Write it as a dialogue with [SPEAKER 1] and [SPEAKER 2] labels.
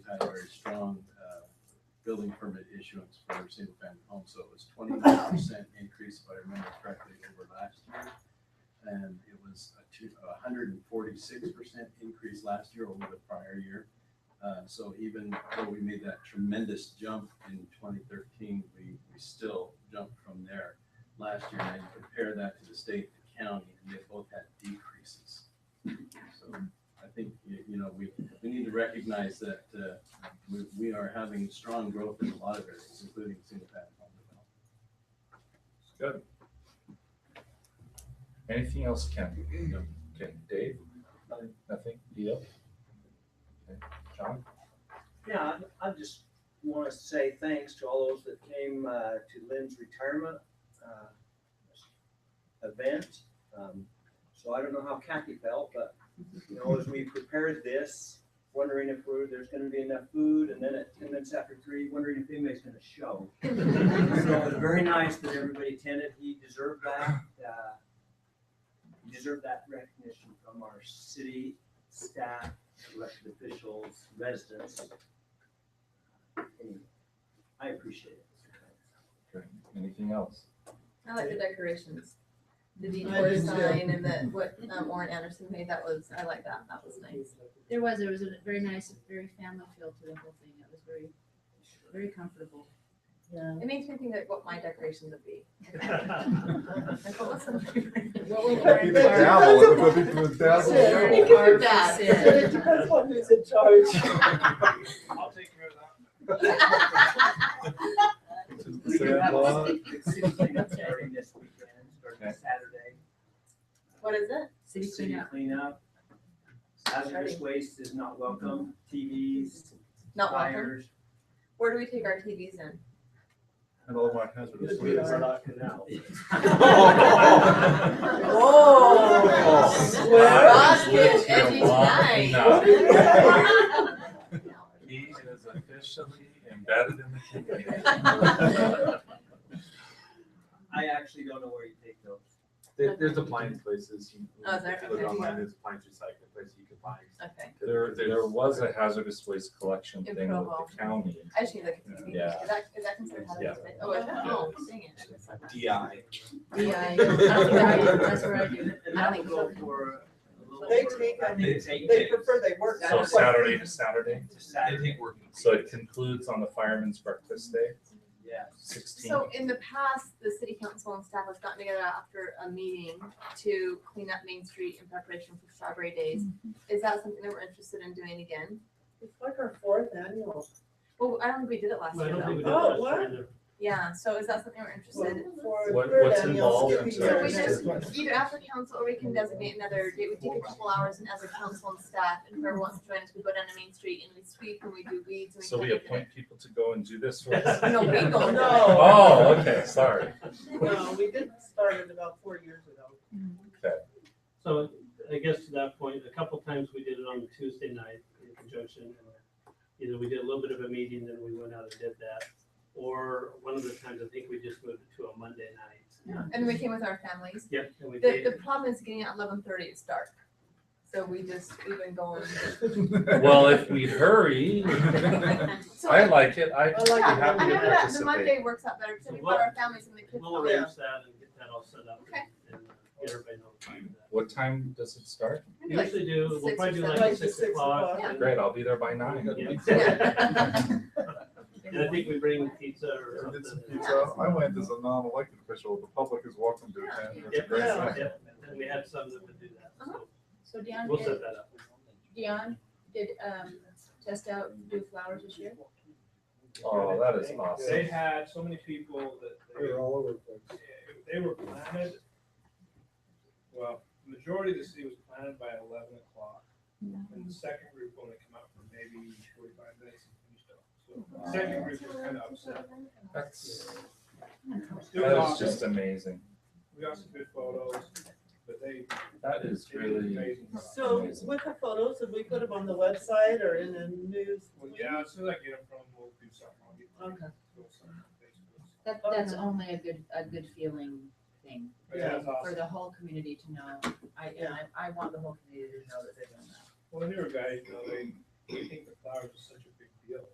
[SPEAKER 1] uh, building permit issuance for single-family homes, so it was twenty-nine percent increase, if I remember correctly, over last year. And it was a two, a hundred and forty-six percent increase last year over the prior year. Uh, so even though we made that tremendous jump in twenty thirteen, we, we still jumped from there last year. And I compare that to the state and county, and they both had decreases. So I think, you, you know, we, we need to recognize that, uh, we, we are having strong growth in a lot of areas, including single family home development.
[SPEAKER 2] Good. Anything else, Ken?
[SPEAKER 1] No.
[SPEAKER 2] Okay, Dave? Nothing? Leo? Okay, John?
[SPEAKER 3] Yeah, I, I just want to say thanks to all those that came uh, to Lynn's retirement uh, event. Um, So I don't know how Kathy felt, but, you know, as we prepared this, wondering if we're, there's going to be enough food, and then at ten minutes after three, wondering if anybody's going to show. So it was very nice that everybody attended. He deserved that, uh, he deserved that recognition from our city staff, elected officials, residents. Anyway, I appreciate it.
[SPEAKER 2] Okay, Anything else?
[SPEAKER 4] I like the decorations. The
[SPEAKER 3] I
[SPEAKER 4] decor
[SPEAKER 3] do too.
[SPEAKER 4] sign and that, what um, Warren Anderson made, that was, I like that, that was nice.
[SPEAKER 5] There was, there was a very nice, very family feel to the whole thing. It was very, very comfortable.
[SPEAKER 6] Yeah.
[SPEAKER 4] It makes me think like what my decorations would be. Like, what was the-
[SPEAKER 5] What will
[SPEAKER 6] Warren-
[SPEAKER 5] Warren,
[SPEAKER 6] Be the devil, it would be
[SPEAKER 5] the
[SPEAKER 6] devil. Warren
[SPEAKER 5] Warren
[SPEAKER 6] Harper
[SPEAKER 4] Dad.
[SPEAKER 5] said.
[SPEAKER 6] It depends on who's in charge.
[SPEAKER 3] I'll take care of that. It's like it's starting this weekend, starting
[SPEAKER 2] Okay.
[SPEAKER 3] Saturday.
[SPEAKER 4] What is it?
[SPEAKER 5] City
[SPEAKER 3] City
[SPEAKER 5] cleanup.
[SPEAKER 3] cleanup. Hazardous waste is not welcome, TVs,
[SPEAKER 4] Not welcome.
[SPEAKER 3] fires.
[SPEAKER 4] Where do we take our TVs in?
[SPEAKER 2] Hello, my husband.
[SPEAKER 1] Just
[SPEAKER 3] we are
[SPEAKER 1] not canal.
[SPEAKER 6] Oh, swear.
[SPEAKER 4] Roscoe, edgy
[SPEAKER 6] What did you
[SPEAKER 4] tonight.
[SPEAKER 2] He is officially embedded in the community.
[SPEAKER 3] I actually don't know where you take those.
[SPEAKER 7] There, there's appliance places. you-
[SPEAKER 4] Oh, is there?
[SPEAKER 7] if you Look
[SPEAKER 4] Okay.
[SPEAKER 7] online, there's appliance recycling places you can buy.
[SPEAKER 4] Okay,
[SPEAKER 2] There, there was a hazardous waste collection
[SPEAKER 4] In
[SPEAKER 2] thing with
[SPEAKER 4] Provo.
[SPEAKER 2] the county.
[SPEAKER 4] I should look at the
[SPEAKER 2] Yeah.
[SPEAKER 4] Is that, is that considered hazardous? waste? Oh, is that? Oh, dang it. I should've said that.
[SPEAKER 7] DI.
[SPEAKER 5] Yeah, that's what I do. That's what I do.
[SPEAKER 3] And that will go for a little.
[SPEAKER 6] They
[SPEAKER 3] over-
[SPEAKER 6] take, I
[SPEAKER 3] They
[SPEAKER 6] mean,
[SPEAKER 3] take
[SPEAKER 6] They
[SPEAKER 3] it
[SPEAKER 6] prefer they work.
[SPEAKER 2] So Saturday to Saturday.
[SPEAKER 3] to Saturday,
[SPEAKER 2] So it concludes on the fireman's breakfast day,
[SPEAKER 3] yeah.
[SPEAKER 2] sixteen.
[SPEAKER 4] So in the past, the city council and staff has gotten together after a meeting to clean up Main Street in preparation for Strawberry Days. Is that something that we're interested in doing again?
[SPEAKER 6] It's like our fourth annual.
[SPEAKER 4] Well, I don't think we did it last
[SPEAKER 8] I
[SPEAKER 4] year
[SPEAKER 8] don't think
[SPEAKER 4] though.
[SPEAKER 8] we did
[SPEAKER 6] Oh,
[SPEAKER 8] last
[SPEAKER 6] what?
[SPEAKER 8] year either.
[SPEAKER 4] Yeah, so is that something we're interested in?
[SPEAKER 6] For
[SPEAKER 2] What-
[SPEAKER 6] third
[SPEAKER 2] what's
[SPEAKER 6] annual
[SPEAKER 2] involved
[SPEAKER 6] skipping
[SPEAKER 2] in
[SPEAKER 4] So we
[SPEAKER 6] years.
[SPEAKER 4] just, either after council or we can designate another date, we take a couple hours and as a council and staff, and whoever wants to join us, we go down to Main Street and we sweep and we do weeds and we.
[SPEAKER 2] So we
[SPEAKER 4] clean up.
[SPEAKER 2] appoint people to go and do this for us?
[SPEAKER 4] No, we go.
[SPEAKER 6] No.
[SPEAKER 2] Oh, okay, sorry.
[SPEAKER 6] No, we did start it about four years ago.
[SPEAKER 8] So I guess to that point, a couple times we did it on Tuesday night in conjunction. and Either we did a little bit of a meeting, then we went out and did that, or one of the times, I think we just moved it to a Monday night.
[SPEAKER 4] And we came with our families.
[SPEAKER 8] Yep, and we
[SPEAKER 4] The,
[SPEAKER 8] did.
[SPEAKER 4] the problem is getting out eleven thirty, it's dark. So we just, we've been going.
[SPEAKER 2] Well, if we hurry,
[SPEAKER 4] So
[SPEAKER 2] I like it. I,
[SPEAKER 6] I like
[SPEAKER 2] I'm
[SPEAKER 6] it.
[SPEAKER 2] happy
[SPEAKER 4] I
[SPEAKER 2] to
[SPEAKER 4] know that the
[SPEAKER 2] participate.
[SPEAKER 4] Monday works out better, because we
[SPEAKER 8] Well,
[SPEAKER 4] put our families and the kids.
[SPEAKER 8] We'll
[SPEAKER 4] on.
[SPEAKER 8] arrange that and get that all set up
[SPEAKER 4] Okay.
[SPEAKER 8] and and, uh, get everybody notified of that.
[SPEAKER 2] What time does it start?
[SPEAKER 8] We Usually do, we'll
[SPEAKER 4] six
[SPEAKER 8] probably
[SPEAKER 4] or
[SPEAKER 8] do
[SPEAKER 4] seven.
[SPEAKER 8] like
[SPEAKER 6] Like
[SPEAKER 8] six
[SPEAKER 6] six
[SPEAKER 8] o'clock.
[SPEAKER 6] o'clock.
[SPEAKER 8] and-
[SPEAKER 2] Great, I'll be there by nine.
[SPEAKER 8] Yeah.
[SPEAKER 4] Yeah.
[SPEAKER 8] And I think we bring pizza or
[SPEAKER 9] If it's
[SPEAKER 8] something.
[SPEAKER 9] pizza, I went as a non-elected official, the public is welcome to attend, it's a
[SPEAKER 8] Yep,
[SPEAKER 9] great
[SPEAKER 6] Yeah.
[SPEAKER 9] event.
[SPEAKER 8] yep, and we have some that would do that, so
[SPEAKER 4] Uh-huh.
[SPEAKER 5] So Dion
[SPEAKER 8] we'll
[SPEAKER 5] did,
[SPEAKER 8] set that up.
[SPEAKER 5] Dion did, um, test out new flowers this year.
[SPEAKER 2] Oh, that is
[SPEAKER 10] They
[SPEAKER 2] awesome.
[SPEAKER 10] had so many people that they were,
[SPEAKER 8] all over
[SPEAKER 10] they were planted. Well, majority of the city was planted by eleven o'clock. And the second group only come out for maybe forty-five minutes and finished up. So the second group was kind of upset.
[SPEAKER 2] That's,
[SPEAKER 10] It was
[SPEAKER 2] that is
[SPEAKER 10] awesome.
[SPEAKER 2] just amazing.
[SPEAKER 10] We got some good photos, but they.
[SPEAKER 2] That is
[SPEAKER 10] they did an
[SPEAKER 2] really,
[SPEAKER 10] amazing job.
[SPEAKER 6] So with the photos, have we put them on the website or in a news?
[SPEAKER 10] Well, yeah, as soon as I get them from, them, we'll do something. I'll get them.
[SPEAKER 6] Okay.
[SPEAKER 10] We'll send them on Facebook.
[SPEAKER 6] That-
[SPEAKER 5] that's
[SPEAKER 6] that's
[SPEAKER 5] only a good, a good feeling thing
[SPEAKER 10] But yeah, it's
[SPEAKER 5] for
[SPEAKER 10] awesome.
[SPEAKER 5] the whole community to know. I, and I, I want the whole community to know that they're doing that.
[SPEAKER 10] Well, newer guys, you know, they, they think the flowers are such a